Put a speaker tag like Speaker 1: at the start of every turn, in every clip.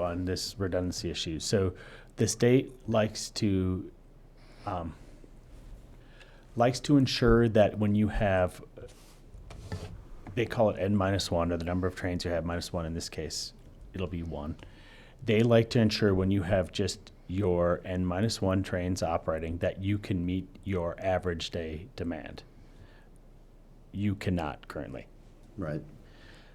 Speaker 1: on this redundancy issue. So the state likes to um, likes to ensure that when you have they call it n minus one or the number of trains you have minus one in this case it'll be one they like to ensure when you have just your n minus one trains operating that you can meet your average day demand you cannot currently
Speaker 2: Right.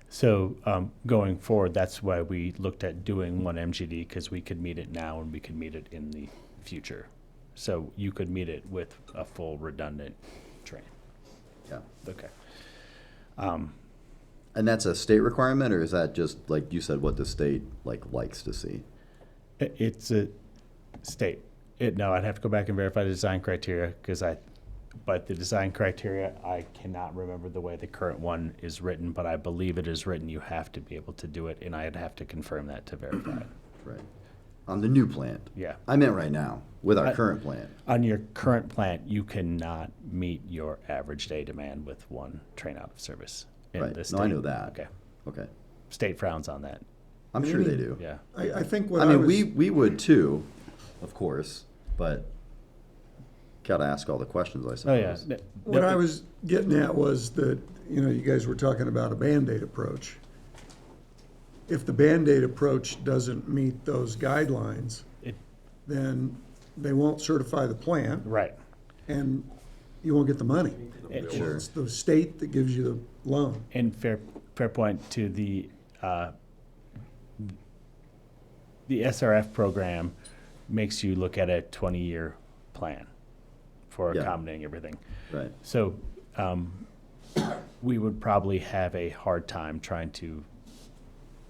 Speaker 1: so um, going forward, that's why we looked at doing one MGD because we could meet it now and we could meet it in the future. So you could meet it with a full redundant train.
Speaker 2: Yeah.
Speaker 1: Okay.
Speaker 2: And that's a state requirement, or is that just like you said, what the state like likes to see?
Speaker 1: I- It's a state. It, no, I'd have to go back and verify the design criteria because I, but the design criteria, I cannot remember the way the current one is written, but I believe it is written. You have to be able to do it, and I'd have to confirm that to verify it.
Speaker 2: Right. On the new plant.
Speaker 1: Yeah.
Speaker 2: I meant right now with our
Speaker 1: I-
Speaker 2: current plant.
Speaker 1: On your current plant, you cannot meet your average day demand with one train out of service. in
Speaker 2: Right.
Speaker 1: the
Speaker 2: No, I know
Speaker 1: state.
Speaker 2: that.
Speaker 1: Okay.
Speaker 2: Okay.
Speaker 1: State frowns on that.
Speaker 2: I'm sure they do.
Speaker 1: Yeah.
Speaker 3: I, I think what
Speaker 2: I
Speaker 3: I
Speaker 2: mean,
Speaker 3: was-
Speaker 2: we, we would too, of course, but gotta ask all the questions, I
Speaker 1: Oh, yeah.
Speaker 2: suppose.
Speaker 1: Th-
Speaker 3: What
Speaker 1: th-
Speaker 3: I was getting at was that, you know, you guys were talking about a Band-Aid approach. If the Band-Aid approach doesn't meet those guidelines,
Speaker 1: it-
Speaker 3: then they won't certify the plant
Speaker 1: Right.
Speaker 3: and you won't get the money.
Speaker 1: It-
Speaker 2: Sure.
Speaker 3: It's the state that gives you the loan.
Speaker 1: And fair, fair point to the, uh, the SRF program makes you look at a 20-year plan for
Speaker 2: Yeah.
Speaker 1: accommodating everything.
Speaker 2: Right.
Speaker 1: So um, we would probably have a hard time trying to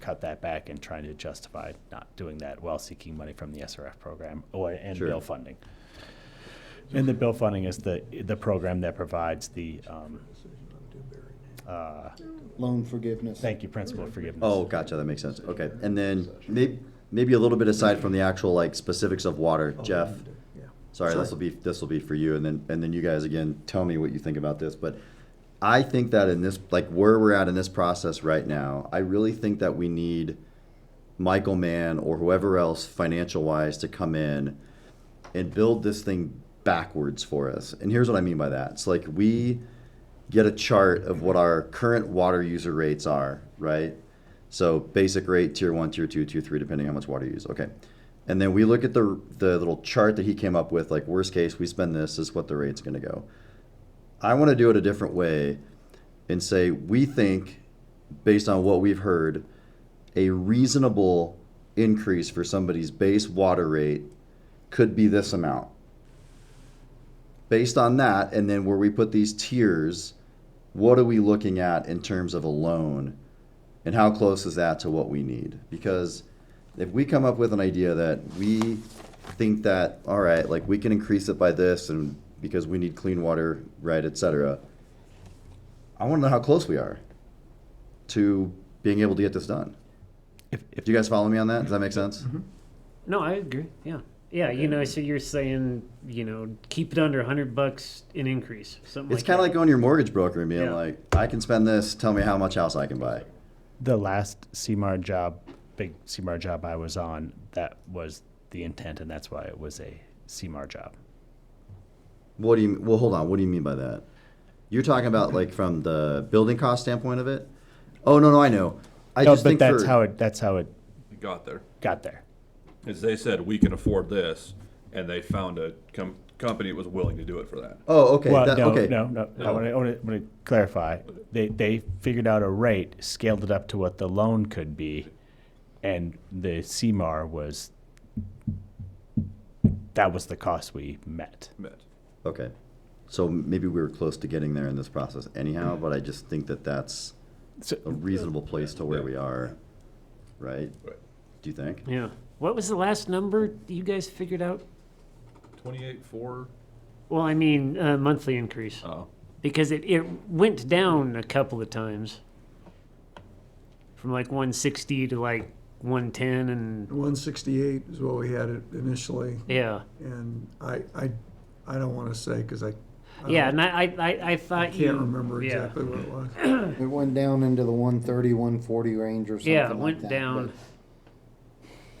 Speaker 1: cut that back and trying to justify not doing that while seeking money from the SRF program or and
Speaker 2: Sure.
Speaker 1: bill funding. And the bill funding is the the program that provides the um,
Speaker 4: Loan forgiveness.
Speaker 1: thank you principal forgiveness.
Speaker 2: Oh, gotcha, that makes sense. Okay. And then may, maybe a little bit aside from the actual like specifics of water,
Speaker 1: Oh,
Speaker 2: Jeff. Sorry, this will be, this will be for you, and then, and then you guys again, tell me what you think about this, but I think that in this, like where we're at in this process right now, I really think that we need Michael Mann or whoever else financial wise to come in and build this thing backwards for us. And here's what I mean by that. It's like we get a chart of what our current water user rates are, right? So basic rate, tier one, tier two, tier three, depending how much water you use. Okay. And then we look at the the little chart that he came up with, like worst case, we spend this, this is what the rate's gonna go. I wanna do it a different way and say we think, based on what we've heard, a reasonable increase for somebody's base water rate could be this amount. Based on that, and then where we put these tiers, what are we looking at in terms of a loan? And how close is that to what we need? Because if we come up with an idea that we think that, all right, like we can increase it by this and because we need clean water, right, et cetera, I want to know how close we are to being able to get this done.
Speaker 1: If, if
Speaker 2: Do you guys follow me on that? Does that make sense?
Speaker 5: No, I agree. Yeah. Yeah, you know, so you're saying, you know, keep it under 100 bucks in increase. Something
Speaker 2: It's
Speaker 5: like
Speaker 2: kind of
Speaker 5: that.
Speaker 2: like going to your mortgage broker and being
Speaker 5: Yeah.
Speaker 2: like, I can spend this, tell me how much house I can buy.
Speaker 1: the last CMAR job, big CMAR job I was on, that was the intent, and that's why it was a CMAR job.
Speaker 2: What do you, well, hold on. What do you mean by that? You're talking about like from the building cost standpoint of it? Oh, no, no, I know. I
Speaker 1: no,
Speaker 2: just
Speaker 1: but
Speaker 2: think
Speaker 1: that's
Speaker 2: for,
Speaker 1: how it that's how it
Speaker 6: got there
Speaker 1: got there.
Speaker 6: is they said we can afford this, and they found a com- company that was willing to do it for that.
Speaker 2: Oh, okay.
Speaker 1: Well,
Speaker 2: that-
Speaker 1: no,
Speaker 2: okay.
Speaker 1: no, no, no. I
Speaker 6: No.
Speaker 1: want to, want to clarify. They, they figured out a rate, scaled it up to what the loan could be, and the CMAR was, that was the cost we met.
Speaker 6: Met.
Speaker 2: Okay. So maybe we were close to getting there in this process anyhow, but I just think that that's
Speaker 1: So,
Speaker 2: a reasonable place to where
Speaker 6: Yeah.
Speaker 2: we are, right?
Speaker 6: Right.
Speaker 2: Do you think?
Speaker 5: Yeah. What was the last number you guys figured out?
Speaker 6: Twenty-eight four.
Speaker 5: Well, I mean, uh, monthly increase.
Speaker 6: Oh,
Speaker 5: Because it, it went down a couple of times from like 160 to like 110. And
Speaker 3: One sixty-eight is what we had it initially,
Speaker 5: yeah.
Speaker 3: and I, I, I don't wanna say, cause I. I
Speaker 5: Yeah.
Speaker 3: don't-
Speaker 5: And I, I, I, I thought you.
Speaker 3: Can't remember
Speaker 5: yeah.
Speaker 3: exactly what it was.
Speaker 4: It went down into the 130, 140 range or something
Speaker 5: Yeah, it
Speaker 4: like
Speaker 5: went
Speaker 4: that,
Speaker 5: down.
Speaker 4: but